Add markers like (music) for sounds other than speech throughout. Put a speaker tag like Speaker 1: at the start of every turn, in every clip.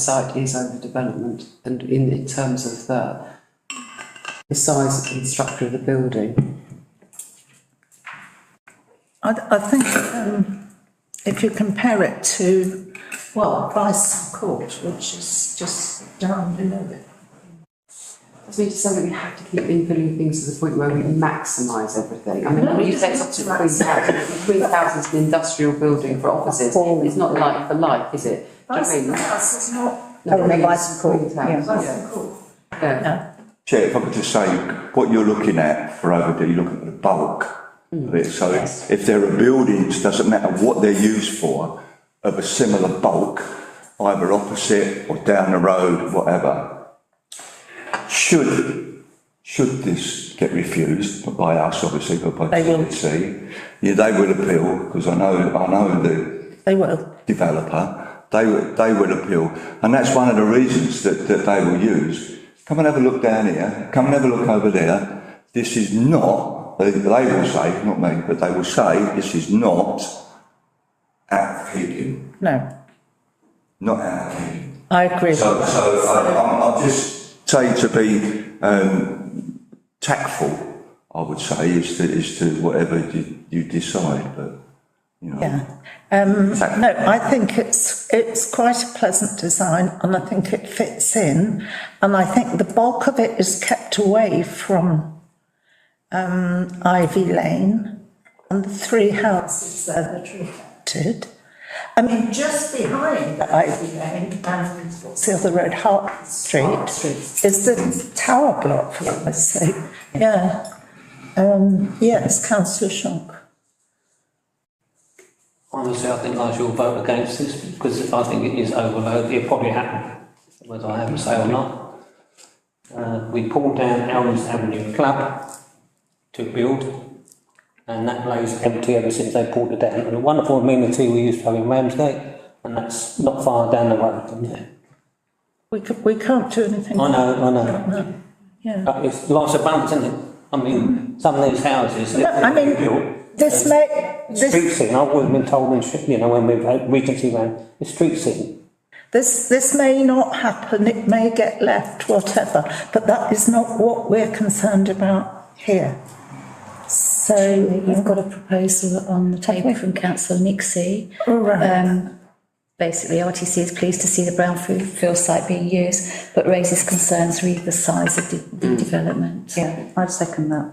Speaker 1: site is overdevelopment and in, in terms of the, the size and structure of the building.
Speaker 2: I, I think, um, if you compare it to, well, Price Court, which is just down below it.
Speaker 1: Does mean to say that we have to keep infilling things to the point where we maximise everything? I mean, when you say it's up to three thousand, three thousand is an industrial building for offices, it's not like for like, is it? Do you know what I mean?
Speaker 2: Price is not,
Speaker 1: No,
Speaker 3: Oh,
Speaker 1: I mean,
Speaker 3: Vice
Speaker 1: it's
Speaker 3: Court,
Speaker 1: 3,000,
Speaker 2: Price Court.
Speaker 1: yeah.
Speaker 4: Chair, if I could just say, what you're looking at for overdue, you're looking at the bulk of it. So
Speaker 2: Mm.
Speaker 4: if there are buildings, doesn't matter what they're used for, of a similar bulk, either opposite or down the road, whatever, should, should this get refused, not by us obviously, but by
Speaker 2: They will.
Speaker 4: TDC, yeah, they will appeal, because I know, I know the
Speaker 2: They will.
Speaker 4: developer, they, would- they will appeal. And that's one of the reasons that, that they will use. Come and have a look down here, come and have a look over there. This is not, they, they will say, not me, but they will say, this is not our opinion,
Speaker 2: No,
Speaker 4: not our opinion.
Speaker 2: I agree.
Speaker 4: So, so I- I'm, I'm just saying to be, um, tactful, I would say, is to, is to whatever you, you decide, but, you know.
Speaker 2: Yeah. Um,
Speaker 4: Sorry.
Speaker 2: no, I think it's, it's quite a pleasant design and I think it fits in. And I think the bulk of it is kept away from, um, Ivy Lane and the three houses there that are affected. I mean, just behind the Ivy Lane and what's the other road, Hart Street, is the tower block, for goodness sake. Yeah. Um, yes, councillor Shonk.
Speaker 5: Honestly, I think I shall vote against this because I think it is overloaded. It probably happened, whether I have a say or not. Uh, we pulled down Elms Avenue Club to build, and that lays empty ever since they pulled it down. And a wonderful amenity we used to have in Ramsgate, and that's not far down the road from there.
Speaker 2: We could, we can't do anything.
Speaker 5: I know, I know.
Speaker 2: No, Yeah.
Speaker 5: But it's lots of bumps, isn't it? I mean, some of these houses.
Speaker 2: No, I mean, this may,
Speaker 5: Street
Speaker 2: this,
Speaker 5: scene, I've always been told, in Sh- you know, when we've had Regency Round, the street scene.
Speaker 2: this, this may not happen, it may get left, whatever, but that is not what we're concerned about here.
Speaker 6: You've
Speaker 2: So,
Speaker 6: got a proposal on the table from councillor Nixie.
Speaker 2: all right,
Speaker 6: Um, basically, RTC is pleased to see the brownfield site being used, but raises concerns re the size of the- the development.
Speaker 3: Yeah, I'd second that.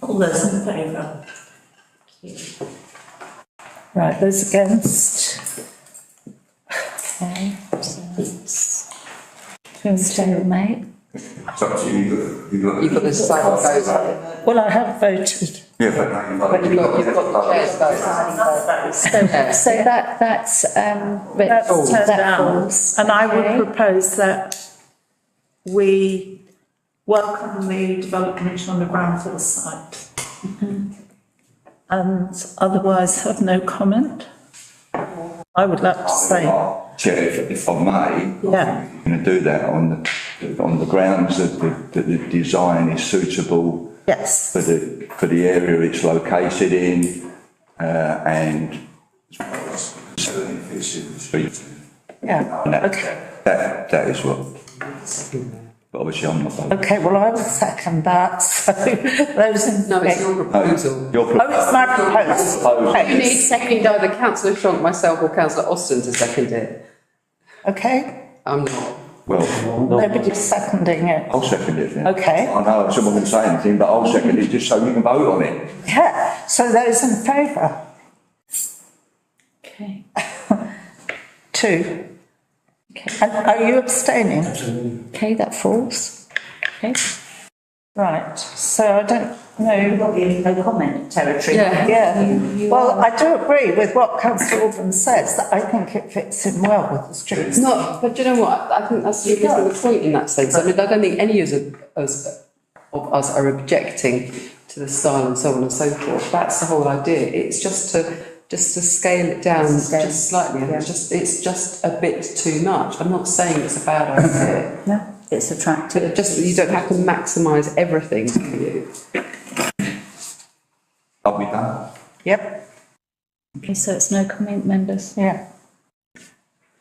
Speaker 2: all those in favour? Right, those against?
Speaker 6: Okay, so that's- Stay, mate.
Speaker 4: It's up to you, you've got- you've got-
Speaker 1: You've got the site that goes up.
Speaker 2: Well, I have voted.
Speaker 4: Yeah, but now you've got.
Speaker 1: But you've got, you've got the chairs
Speaker 6: So, so that, that's, um, re-
Speaker 2: That's turned
Speaker 6: that
Speaker 2: down.
Speaker 6: falls.
Speaker 2: And I
Speaker 6: Okay.
Speaker 2: would propose that we welcome the development on the Brownfield site. And otherwise have no comment? I would like to say,
Speaker 4: Chair, if- if I may.
Speaker 2: Yeah.
Speaker 4: I'm going to do that on the, on the grounds that the, that the design is suitable
Speaker 2: yes,
Speaker 4: for the, for the area it's located in, uh, and. Certainly fits in the street.
Speaker 2: yeah,
Speaker 4: And that-
Speaker 2: okay.
Speaker 4: That, that is what. But obviously I'm not voting.
Speaker 2: Okay, well, I will second that, (laughs) so those in.
Speaker 1: No, it's
Speaker 2: Oh,
Speaker 1: your proposal.
Speaker 4: Your
Speaker 2: it's my proposal.
Speaker 1: You need,
Speaker 2: Okay.
Speaker 1: you need either councillor Shonk, myself or councillor Austin to second it.
Speaker 2: Okay,
Speaker 1: I'm not.
Speaker 4: well,
Speaker 2: nobody's seconding it.
Speaker 4: I'll second it then.
Speaker 2: Okay.
Speaker 4: I know someone can say anything, but I'll second it just so you can vote on it.
Speaker 2: Yeah, so those in favour?
Speaker 6: Okay.
Speaker 2: Two. And are you abstaining?
Speaker 6: Okay, that falls. Okay.
Speaker 2: Right, so I don't know,
Speaker 3: No comment territory.
Speaker 1: Yeah.
Speaker 2: yeah, well, I do agree with what councillor Alban says, that I think it fits in well with the streets.
Speaker 1: Not, but do you know what? I think that's the missing the point in that sense. I mean, I don't think any of us, of us are objecting to the style and so on and so forth. That's the whole idea. It's just to, just to scale it down just slightly. and It's just, it's just a bit too much. I'm not saying it's a bad idea,
Speaker 3: Yeah, it's attractive.
Speaker 1: but it just, you don't have to maximise everything, do you?
Speaker 4: I'll be done.
Speaker 2: Yep,
Speaker 6: Okay, so it's no comment, members?
Speaker 2: yeah.